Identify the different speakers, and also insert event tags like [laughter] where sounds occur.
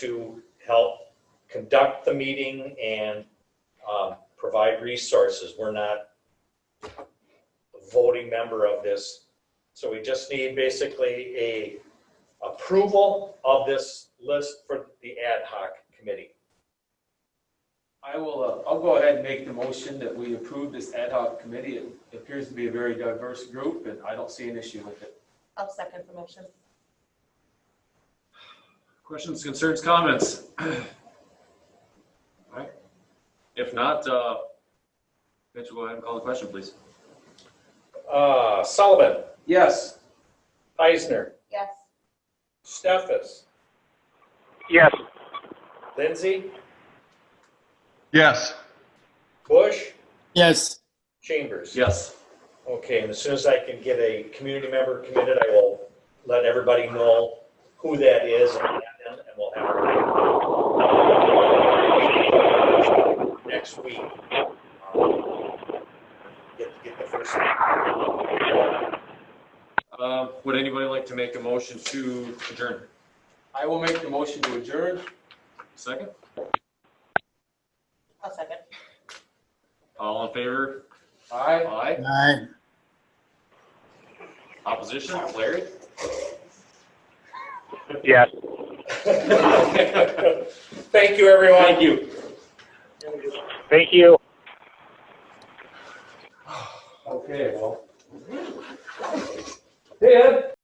Speaker 1: help conduct the meeting and um, provide resources. We're not a voting member of this. So we just need basically a approval of this list for the ad hoc committee.
Speaker 2: I will, uh, I'll go ahead and make the motion that we approve this ad hoc committee. It appears to be a very diverse group, and I don't see an issue with it.
Speaker 3: I'll second the motion.
Speaker 4: Questions, concerns, comments? [clears throat] All right. If not, uh, Mitch, go ahead and call the question, please.
Speaker 1: Uh, Sullivan,
Speaker 2: Yes,
Speaker 1: Eisner,
Speaker 3: Yes,
Speaker 1: Steffes,
Speaker 5: Yes.
Speaker 1: Lindsay,
Speaker 5: Yes.
Speaker 1: Bush,
Speaker 6: yes,
Speaker 1: Chambers.
Speaker 4: Yes.
Speaker 1: Okay, and as soon as I can get a community member committed, I will let everybody know who that is and add them, and we'll have our next week. um, Get, get the first.
Speaker 4: Um, would anybody like to make a motion to adjourn?
Speaker 2: I will make the motion to adjourn.
Speaker 4: Second?
Speaker 3: I'll second.
Speaker 4: All in favor?
Speaker 2: Aye.
Speaker 4: Aye.
Speaker 6: aye.
Speaker 4: Opposition? Larry?
Speaker 5: Yes.
Speaker 1: Thank you, everyone.
Speaker 4: Thank you.
Speaker 5: Thank you.
Speaker 2: Okay, well.